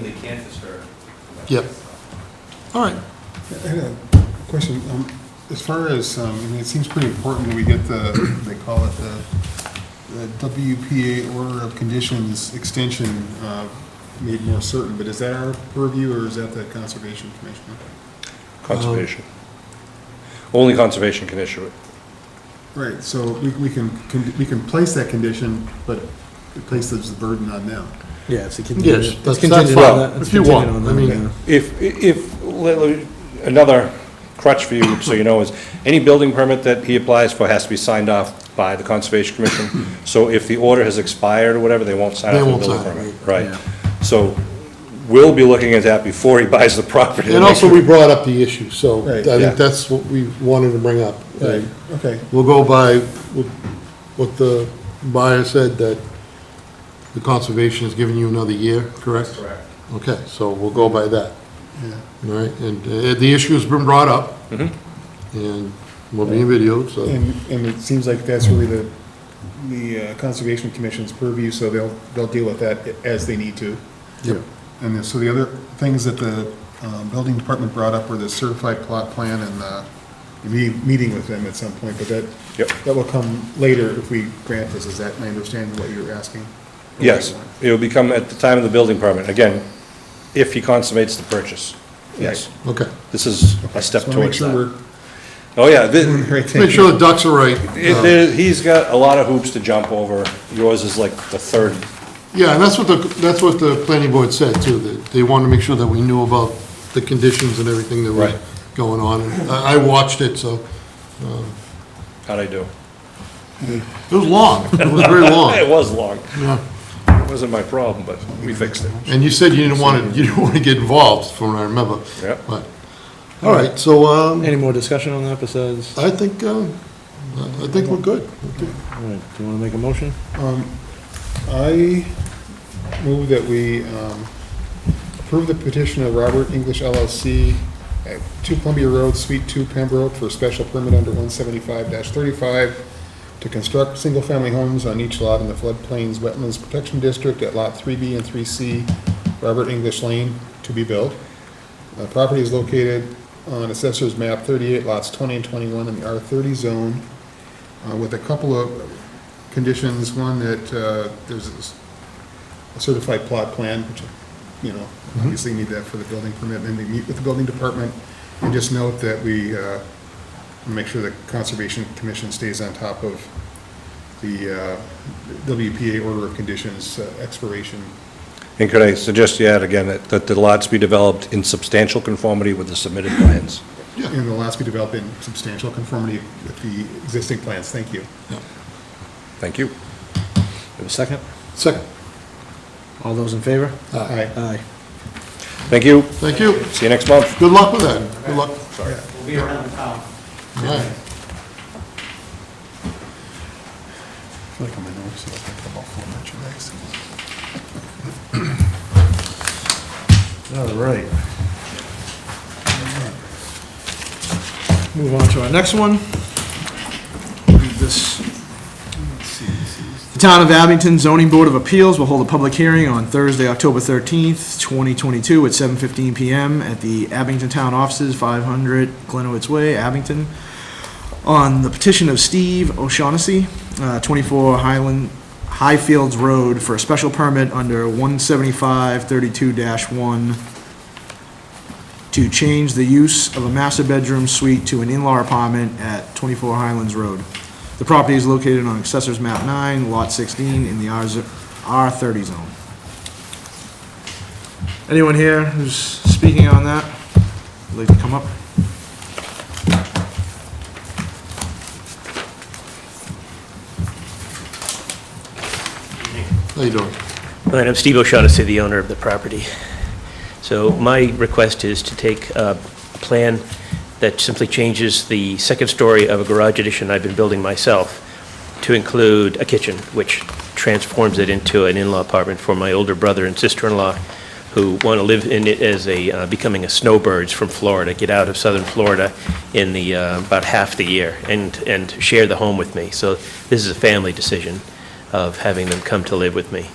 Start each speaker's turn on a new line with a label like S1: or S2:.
S1: register.
S2: Yep. All right.
S3: I had a question, um, as far as, um, I mean, it seems pretty important that we get the, they call it the the WPA Order of Conditions extension uh, made more certain, but is that our purview or is that the Conservation Commission?
S4: Conservation. Only conservation can issue it.
S3: Right, so we we can, can- we can place that condition, but it places the burden on them.
S5: Yeah, it's a
S2: Yes,
S5: contingent.
S2: that's-
S5: It's contingent
S2: that's
S5: on that.
S2: fine.
S5: it's
S2: If you want,
S5: contingent on
S2: I
S5: them,
S2: mean-
S5: yeah.
S4: If, if, let- let- another crutch for you, so you know, is any building permit that he applies for has to be signed off by the Conservation Commission. So if the order has expired or whatever, they won't sign
S2: They
S4: off on
S2: won't
S4: the building
S2: sign
S4: permit.
S2: it,
S4: Right. So we'll be looking at that before he buys the property. to
S2: And
S4: make
S2: also,
S4: sure-
S2: we brought up the issue, so I
S3: Right,
S4: yeah.
S2: think that's what we wanted to bring up.
S3: Right, okay.
S2: We'll go by what what the buyer said, that the conservation has given you another year, correct?
S1: Correct.
S2: Okay, so we'll go by that,
S3: Yeah.
S2: all right? And uh, the issue's been brought up, Mm-hmm. and we'll be videoed, so.
S3: And, and it seems like that's really the, the uh, Conservation Commission's purview, so they'll, they'll deal with that as they need to.
S2: Yep.
S3: And then, so the other things that the um, building department brought up were the certified plot plan and the, the me- meeting with them at some point, but that,
S4: Yep.
S3: that will come later if we grant this, is that my understanding of what you're asking?
S4: Yes, it will become at the time of the building permit, again, if he consummates the purchase. Yes,
S2: Okay.
S4: this is a step
S3: Just wanna make
S4: towards
S3: sure
S4: that.
S3: we're
S4: Oh, yeah, thi-
S3: doing the right thing.
S2: Make sure the ducks are right.
S4: It- there- He's got a lot of hoops to jump over. Yours is like the third.
S2: Yeah, and that's what the, that's what the planning board said too, that they wanted to make sure that we knew about the conditions and everything that was
S4: Right.
S2: going on. And I I watched it, so
S4: How'd I do?
S2: it was long. It was very
S4: It
S2: long.
S4: was long.
S2: Yeah.
S4: It wasn't my problem, but we fixed it.
S2: And you said you didn't want to, you didn't want to get involved, from what I remember.
S4: Yeah.
S2: But, all right, so, um,
S5: Any more discussion on that besides, all
S2: I think, um, I think we're good.
S5: right, do you want to make a motion?
S3: I move that we um, approve the petition of Robert English LLC at 2 Columbia Road, Suite 2, Pembroke, for a special permit under 175-35 to construct single-family homes on each lot in the floodplains wetlands protection district at Lot 3B and 3C, Robert English Lane, to be built. The property is located on Assessor's Map 38, lots 20 and 21 in the R30 zone, uh, with a couple of conditions. One, that uh, there's a certified plot plan, which, you know, obviously need that for the building permit, and they meet with the building department. And just note that we uh, make sure the Conservation Commission stays on top of the uh, WPA order of conditions uh, expiration.
S4: And could I suggest you add again that, that the lots be developed in substantial conformity with the submitted plans?
S3: And the last be developed in substantial conformity with the existing plans. Thank you.
S4: Thank you.
S5: Have a second?
S2: Second.
S5: All those in favor?
S2: Aye.
S3: Aye.
S5: Aye.
S4: Thank you.
S2: Thank you.
S4: See you next month.
S2: Good luck with that. Good luck. All
S1: We'll be around town.
S2: right.
S3: I feel like I'm a nurse, so I think I'm all full of merchandise.
S5: All right. Move on to our next one. This, the Town of Abington Zoning Board of Appeals will hold a public hearing on Thursday, October 13th, 2022, at 7:15 PM at the Abington Town Offices, 500 Glenowitz Way, Abington, on the petition of Steve O'Shaughnessy, uh, 24 Highland, Highfields Road, for a special permit under 175-32-1 to change the use of a master bedroom suite to an in-law apartment at 24 Highlands Road. The property is located on Accessors Map 9, Lot 16, in the R zo- R30 zone. Anyone here who's speaking on that? Would like to come up?
S2: How you doing?
S6: My name's Steve O'Shaughnessy, the owner of the property. So my request is to take uh, a plan that simply changes the second story of a garage addition I've been building myself to include a kitchen, which transforms it into an in-law apartment for my older brother and sister-in-law who want to live in it as a, uh, becoming a snowbirds from Florida, get out of southern Florida in the, uh, about half the year and, and share the home with me. So this is a family decision of having them come to live with me.